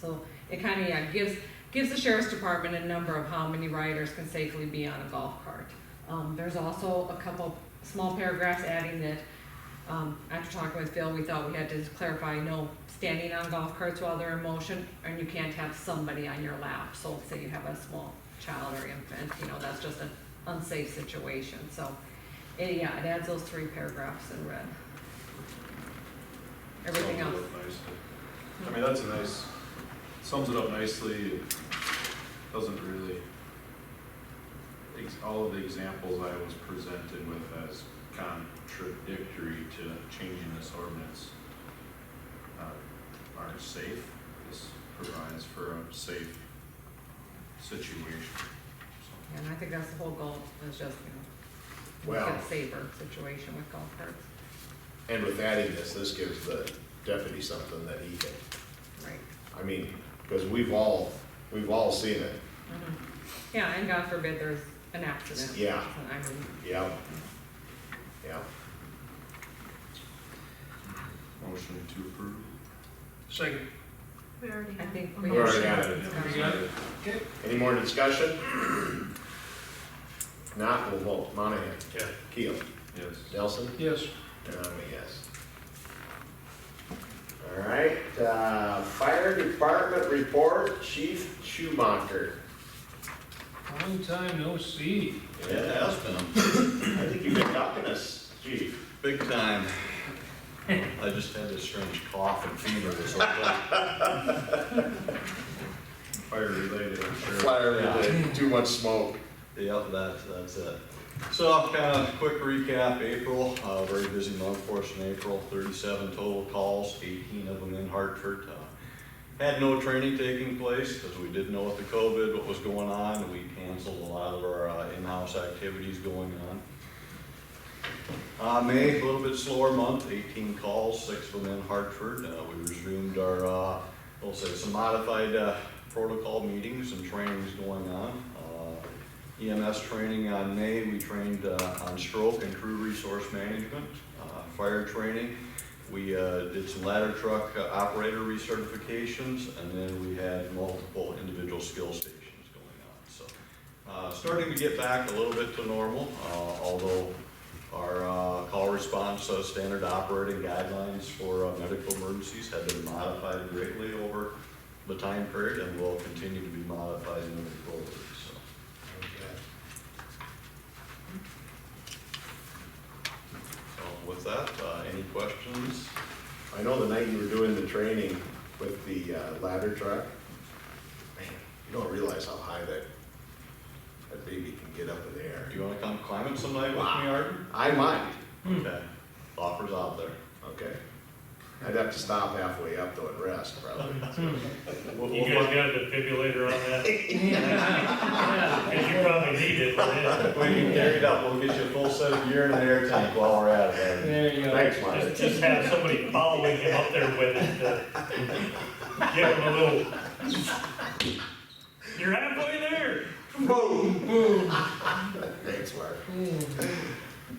So it kind of, yeah, gives, gives the sheriff's department a number of how many riders can safely be on a golf cart. Um, there's also a couple small paragraphs adding that, um, after talking with Phil, we thought we had to clarify, no standing on golf carts while they're in motion, and you can't have somebody on your lap. So say you have a small child or infant, you know, that's just an unsafe situation, so. It, yeah, it adds those three paragraphs in red. Everything Sums else. it up nicely. I mean, that's a nice, sums it up nicely, It doesn't really, ex- all of the examples I was presented with as contradictory to changing this ordinance uh, are safe, this provides for a safe situation, so. And I think that's the whole goal, is just, you know, Well- make it safer situation with golf carts, And with adding this, this gives the deputy something that he can, right? I mean, because we've all, we've all seen it, Mhm. Yeah, and God forbid there's an accident. Yeah. I mean, yeah. Yeah, Motion to approve. Second. We already I have. think a we. We're motion. already at it. any more discussion? Not, we'll vote, Monahan, Yeah. Keel, Yes. Nelson, Yes. and I'm a yes. All right, uh, fire department report, Chief Schumacher. Long time no see. Yeah, it has been, I think you've been talking to us, chief. big time. I just had this strange cough and fever this whole time. Fire related, I'm sure. Fire, related, too much smoke. Yep, that, that's it. So kind of quick recap, April, uh, very busy month for us in April, thirty-seven total calls, eighteen of them in Hartford. Uh, Had no training taking place because we didn't know with the COVID what was going on. We canceled a lot of our uh, in-house activities going on. Uh, May, a little bit slower month, eighteen calls, six of them in Hartford. Uh, we resumed our, uh, we'll say some modified, uh, protocol meetings and trainings going on. Uh, EMS training on May, we trained, uh, on stroke and crew resource management, uh, fire training. We, uh, did some ladder truck uh, operator recertifications, and then we had multiple individual skill stations going on, so. Uh, starting to get back a little bit to normal, uh, although our uh, call response uh, standard operating guidelines for uh, medical emergencies have been modified greatly over the time period and will continue to be modified moving forward, so. so With that, uh, any questions? I know the night you were doing the training with the uh, ladder truck, man, you don't realize how high that, that baby can get up in the air. Do you wanna come climb it some night with me, Wow. Arden? I might, Hmm. Okay, offers out there. okay. I'd have to stop halfway up though and rest probably. We'll- You we'll guys got a defibrillator on that? Cause you probably need it for that. When you carry it up, we'll get you a full set of urine and air tank while we're at it. Arden. There you go. Thanks, Mike. Just, just have somebody following him up there with it to give him a little. You're halfway there. Thanks, Mark.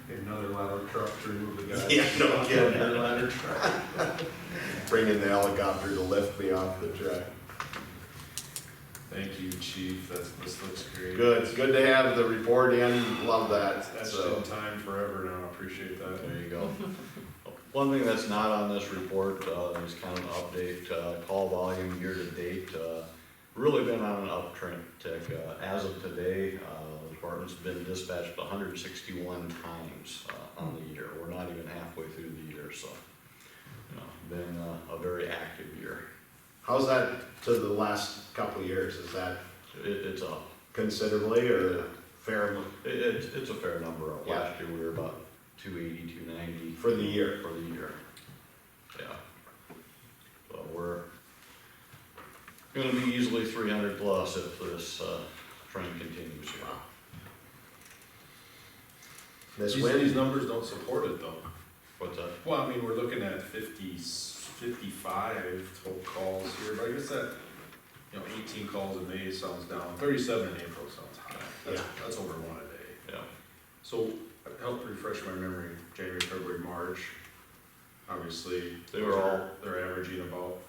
Get Another ladder truck to remove the guy. Yeah, no kidding. Bringing the helicopter to lift me off the truck. Thank you, chief, that's, this looks great. Good, it's good to have the report in, love that, That's so. in time forever now, I appreciate that. There you go. One thing that's not on this report, uh, is kind of an update, uh, call volume year to date, uh, really been on an uptrend, tick, uh, as of today, uh, the department's been dispatched hundred and sixty-one times, uh, on the year, we're not even halfway through the year, so. You know, been, uh, a very active year, How's that to the last couple of years? Is that it, it's up, considerably or fair it, it's, it's a fair number, Yeah. last year we were about two eighty, two ninety. for the year? for the year. Yeah. So we're gonna be easily three hundred plus if this, uh, trend continues here. Wow. This These, these wind, numbers don't support it though. What's that? Well, I mean, we're looking at fifty, fifty-five total calls here, but I guess that, you know, eighteen calls in May sounds down, thirty-seven in April sounds high. That's, that's over one a day. Yeah. So, help refresh my memory, January, February, March, obviously. They were all- They're averaging about